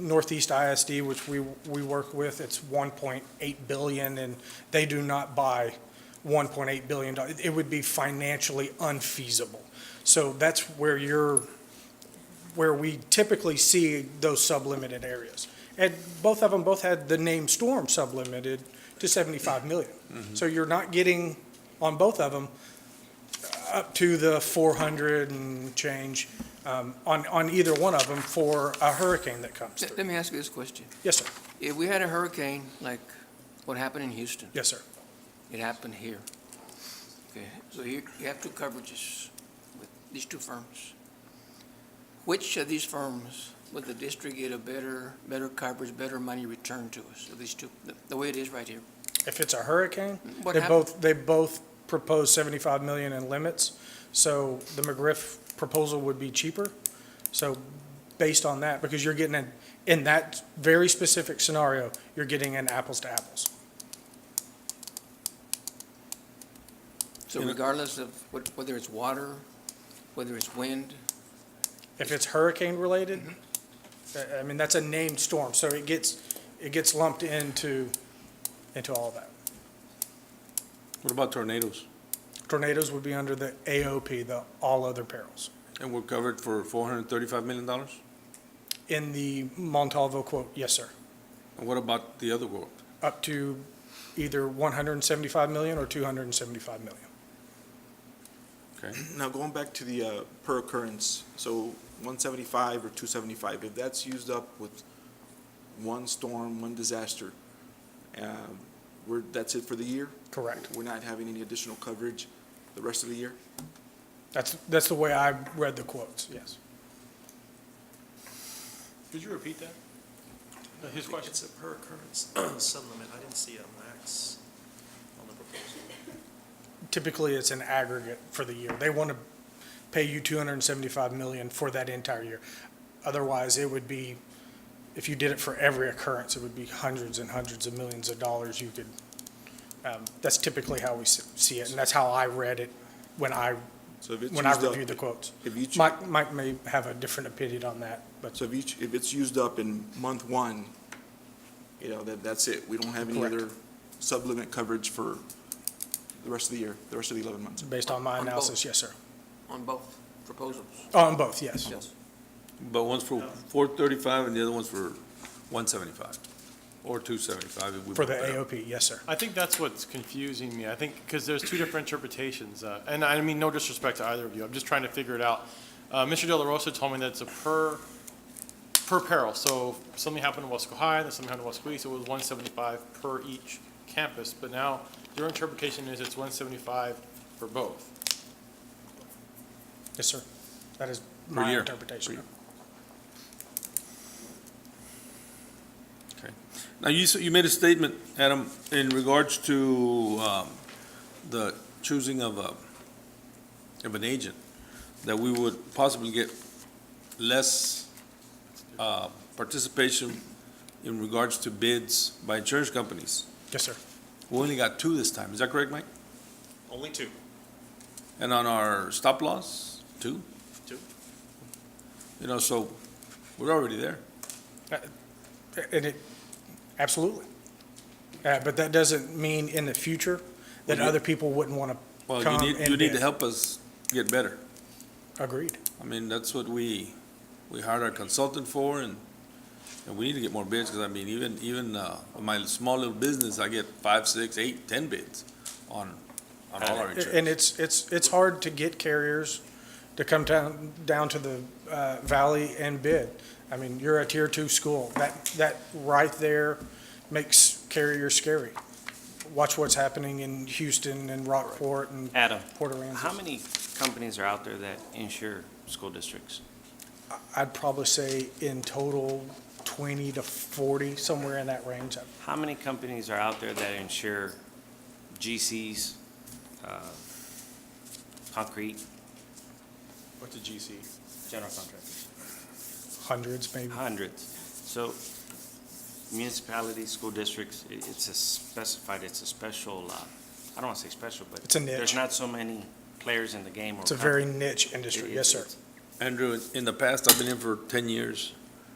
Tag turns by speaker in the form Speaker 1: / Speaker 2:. Speaker 1: Northeast ISD, which we, we work with, it's 1.8 billion, and they do not buy 1.8 billion. doll- It would be financially unfeasible. So that's where you're, where we typically see those sublimited areas. And both of them both had the name storm sublimited to 75 million. So you're not getting, on both of them, up to the 400 and change um, on, on either one of them for a hurricane that comes
Speaker 2: Let
Speaker 1: through.
Speaker 2: let me ask you this question.
Speaker 1: Yes, sir.
Speaker 2: If we had a hurricane like what happened in Houston,
Speaker 1: Yes, sir.
Speaker 2: it happened here. Okay, so you, you have two coverages with these two firms. Which of these firms would the district get a better, better coverage, better money returned to us, of these two, the- the way it is right here?
Speaker 1: If it's a hurricane,
Speaker 2: What
Speaker 1: they
Speaker 2: happened?
Speaker 1: both, they both propose 75 million in limits. So the McGriff proposal would be cheaper. So based on that, because you're getting, an- in that very specific scenario, you're getting an apples to apples.
Speaker 2: So regardless of what- whether it's water, whether it's wind,
Speaker 1: If it's hurricane related, I- I mean, that's a named storm, so it gets, it gets lumped into, into all of that.
Speaker 3: What about tornadoes?
Speaker 1: Tornadoes would be under the AOP, the all other perils,
Speaker 3: And we're covered for four hundred and thirty-five million dollars?
Speaker 1: in the Montalvo quote, yes, sir,
Speaker 3: And what about the other world?
Speaker 1: up to either 175 million or 275 million.
Speaker 3: Okay,
Speaker 4: Now, going back to the uh, per occurrence, so 175 or 275, if that's used up with one storm, one disaster, um, we're, that's it for the year?
Speaker 1: Correct.
Speaker 4: We're not having any additional coverage the rest of the year?
Speaker 1: That's, that's the way I read the quotes, yes.
Speaker 5: Could you repeat that? His question?
Speaker 6: It's a per occurrence sun limit. I didn't see a max on the proposal.
Speaker 1: Typically, it's an aggregate for the year. They want to pay you 275 million for that entire year. Otherwise, it would be, if you did it for every occurrence, it would be hundreds and hundreds of millions of dollars you could, um, that's typically how we s- see it, and that's how I read it when I,
Speaker 4: So if it's
Speaker 1: when I
Speaker 4: used up-
Speaker 1: reviewed the quotes.
Speaker 4: If you, ch-
Speaker 1: Mike, Mike may have a different opinion on that, but
Speaker 4: so if you, ch- if it's used up in month one, you know, that, that's it? We don't have any
Speaker 1: Correct.
Speaker 4: other sublimit coverage for the rest of the year, the rest of the 11 months?
Speaker 1: based on my
Speaker 2: On both.
Speaker 1: analysis, yes, sir. Oh,
Speaker 2: on both proposals?
Speaker 1: On both, yes.
Speaker 2: Yes.
Speaker 3: but one's for four thirty-five and the other one's for one seventy-five, or two seventy-five.
Speaker 1: For the AOP, yes, sir.
Speaker 5: I think that's what's confusing me. I think, because there's two different interpretations, uh, and I mean, no disrespect to either of you. I'm just trying to figure it out. Uh, Mr. De La Rosa told me that it's a per, per peril. So something happened in Wesco High, then something happened in Wesco East, it was one seventy-five per each campus. But now your interpretation is it's one seventy-five for both.
Speaker 1: Yes, sir. That is my
Speaker 3: year.
Speaker 1: interpretation.
Speaker 3: Now, you, s- you made a statement, Adam, in regards to, um, the choosing of a, of an agent, that we would possibly get less, uh, participation in regards to bids by insurance companies.
Speaker 1: Yes, sir.
Speaker 3: We only got two this time, is that correct, Mike?
Speaker 6: Only two.
Speaker 3: And on our stop loss, two?
Speaker 6: Two.
Speaker 3: You know, so we're already there.
Speaker 1: And it, absolutely. Uh, But that doesn't mean in the future that
Speaker 3: Well, you-
Speaker 1: other people wouldn't want
Speaker 3: Well,
Speaker 1: to
Speaker 3: you
Speaker 1: come
Speaker 3: need, you
Speaker 1: and
Speaker 3: need to
Speaker 1: bid.
Speaker 3: help us get better.
Speaker 1: Agreed.
Speaker 3: I mean, that's what we, we hired our consultant for and, and we need to get more bids, because I mean, even, even, uh, my small little business, I get five, six, eight, ten bids on, on all our
Speaker 1: And
Speaker 3: insurance.
Speaker 1: it's, it's, it's hard to get carriers to come down, down to the uh, valley and bid. I mean, you're a tier two school. That, that right there makes carriers scary. Watch what's happening in Houston and Rockport and
Speaker 7: Adam,
Speaker 1: Port Aransas.
Speaker 7: how many companies are out there that insure school districts?
Speaker 1: I'd probably say in total, 20 to 40, somewhere in that range.
Speaker 7: How many companies are out there that insure GCs, uh, concrete?
Speaker 5: What's a GC?
Speaker 7: General contractors.
Speaker 1: Hundreds, maybe.
Speaker 7: Hundreds. So municipalities, school districts, i- it's a specified, it's a special, uh, I don't want to say special, but.
Speaker 1: It's a niche.
Speaker 7: There's not so many players in the game or.
Speaker 1: It's a
Speaker 7: companies.
Speaker 1: very niche industry.
Speaker 7: It-
Speaker 1: Yes, sir.
Speaker 7: it's-
Speaker 3: Andrew, in the past, I've been in for ten years,